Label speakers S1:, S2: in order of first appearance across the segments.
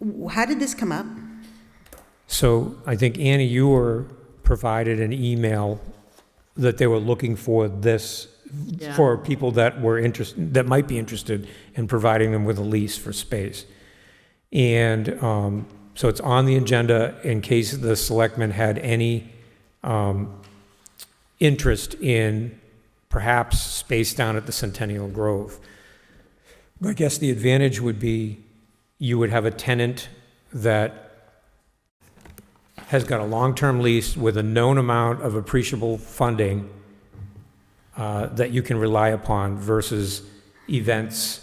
S1: w- how did this come up?
S2: So I think Annie, you were provided an email that they were looking for this,
S3: Yeah.
S2: for people that were interested, that might be interested in providing them with a lease for space. And um, so it's on the agenda in case the selectmen had any um, interest in perhaps space down at the Centennial Grove. I guess the advantage would be you would have a tenant that has got a long-term lease with a known amount of appreciable funding uh, that you can rely upon versus events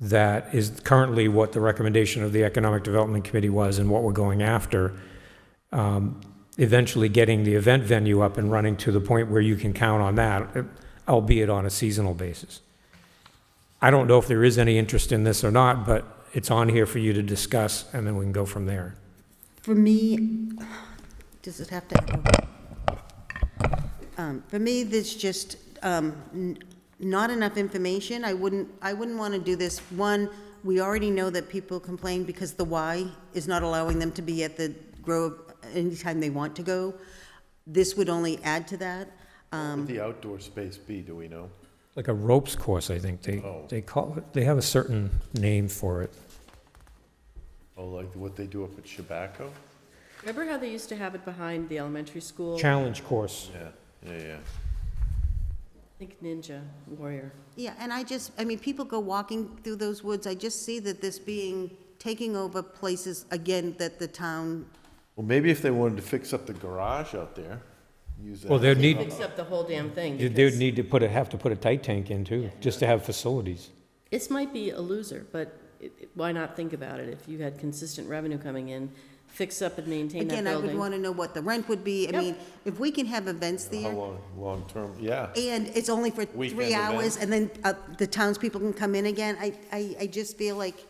S2: that is currently what the recommendation of the Economic Development Committee was and what we're going after. Um, Eventually getting the event venue up and running to the point where you can count on that, albeit on a seasonal basis. I don't know if there is any interest in this or not, but it's on here for you to discuss, and then we can go from there.
S1: For me, does it have to? oh. Um, For me, there's just um, n- not enough information. I wouldn't, I wouldn't want to do this. One, we already know that people complain because the Y is not allowing them to be at the Grove anytime they want to go. This would only add to that. Um,
S4: Would the outdoor space be, do we know?
S2: like a ropes course, I think they,
S4: Oh.
S2: they call it, they have a certain name for it.
S4: Oh, like what they do up at Chabaco?
S3: Remember how they used to have it behind the elementary school? I
S2: Challenge course.
S4: Yeah, yeah, yeah.
S3: think Ninja Warrior.
S1: Yeah, and I just, I mean, people go walking through those woods, I just see that this being, taking over places, again, that the town,
S4: Well, maybe if they wanted to fix up the garage out there, use that.
S2: Well, they'd need,
S3: Fix up the whole damn thing.
S2: they
S3: because
S2: would need to put a, have to put a tight tank in too, just to have facilities.
S3: This might be a loser, but it- it- why not think about it? If you had consistent revenue coming in, fix up and maintain that
S1: again, I would
S3: building.
S1: want to know what the rent would be. I
S3: Yep.
S1: mean, if we can have events
S4: How
S1: there,
S4: long, long-term, yeah.
S1: and it's only for
S4: Weekend
S1: three hours, and
S4: event.
S1: then uh, the townspeople can come in again, I, I, I just feel like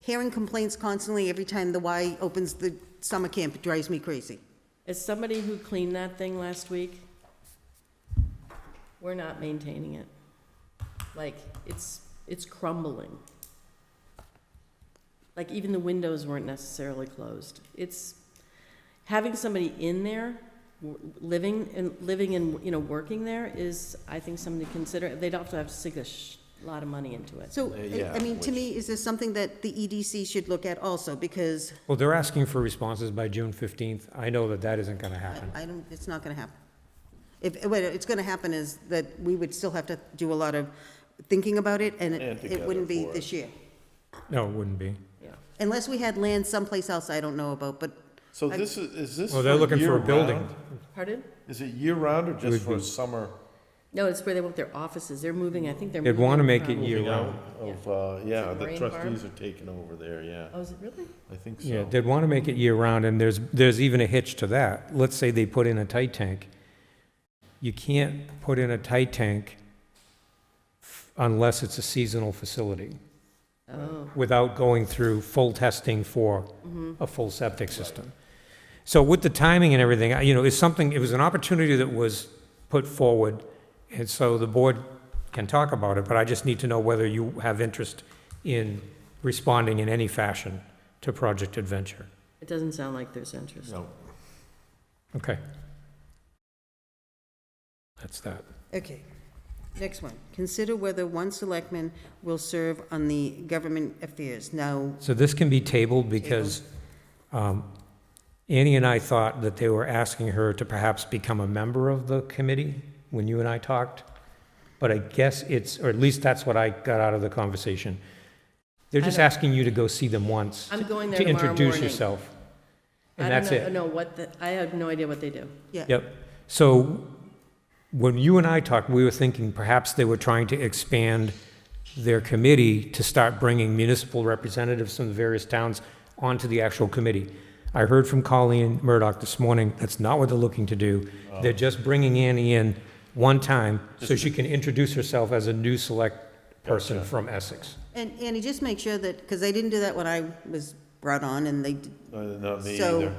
S1: hearing complaints constantly every time the Y opens the summer camp it drives me crazy.
S3: As somebody who cleaned that thing last week, we're not maintaining it. Like, it's, it's crumbling. Like, even the windows weren't necessarily closed. It's, having somebody in there, w- living and, living and, you know, working there is, I think, something to consider. They'd also have to sink a sh- lot of money into it.
S1: So, I-
S4: Uh, yeah,
S1: I mean, to
S4: which-
S1: me, is this something that the EDC should look at also, because
S2: Well, they're asking for responses by June fifteenth. I know that that isn't gonna happen.
S1: I don't, it's not gonna happen. If, what it's gonna happen is that we would still have to do a lot of thinking about it, and it-
S4: And
S1: it
S4: together
S1: wouldn't be
S4: for it.
S1: this year.
S2: No, it wouldn't be.
S3: Yeah.
S1: Unless we had land someplace else I don't know about, but
S4: So this is, is this
S2: Well, they're
S4: for
S2: looking for a building.
S4: year-round?
S3: Pardon?
S4: Is it year-round or
S2: would
S4: just for
S2: be-
S4: summer?
S3: No, it's where they want their offices. They're moving, I think they're
S2: They'd
S3: moving.
S2: wanna make it
S3: from-
S2: year
S4: Moving
S2: round.
S4: out Of, uh, yeah,
S3: it
S4: the
S3: Marine Farm?
S4: trustees are taking over there, yeah.
S3: Oh, is it really?
S4: I think
S2: Yeah,
S4: so.
S2: they'd wanna make it year round and there's, there's even a hitch to that. Let's say they put in a tight tank. You can't put in a tight tank f- unless it's a seasonal facility.
S3: Oh.
S2: without going through full testing for a full septic system. So with the timing and everything, I- you know, it's something, it was an opportunity that was put forward, and so the board can talk about it, but I just need to know whether you have interest in responding in any fashion to Project Adventure.
S3: It doesn't sound like there's interest.
S4: No.
S2: Okay. That's that.
S1: Okay. Next one. Consider whether one selectman will serve on the government affairs. Now,
S2: So this can be tabled because um, Annie and I thought that they were asking her to perhaps become a member of the committee when you and I talked. But I guess it's, or at least that's what I got out of the conversation. They're
S3: I
S2: just
S3: don't-
S2: asking you to go see them once.
S3: I'm
S2: to-
S3: going there
S2: To
S3: tomorrow
S2: introduce
S3: morning.
S2: yourself.
S3: I
S2: And that's
S3: don't know,
S2: it.
S3: know what the, I have no idea what they do.
S1: yeah.
S2: Yep. So when you and I talked, we were thinking perhaps they were trying to expand their committee to start bringing municipal representatives from the various towns onto the actual committee. I heard from Colleen Murdoch this morning, that's not what they're looking to do. They're just bringing Annie in one time so she can introduce herself as a new select person from Essex.
S1: And, Annie, just make sure that, because they didn't do that when I was brought on, and they, d-
S4: Uh, Not me
S1: so,
S4: either.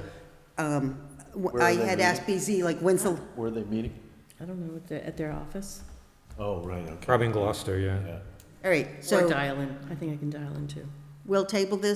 S1: um, w-
S4: Where are
S1: I
S4: they
S1: had
S4: meeting?
S1: asked BZ, like, when's the,
S4: Where are they meeting?
S3: I don't know, at their, at their office?
S4: Oh, right, okay.
S2: Probably in Gloucester, yeah.
S4: Yeah.
S1: all right,
S3: Or
S1: so
S3: dial in. I think I can dial in too.
S1: we'll table this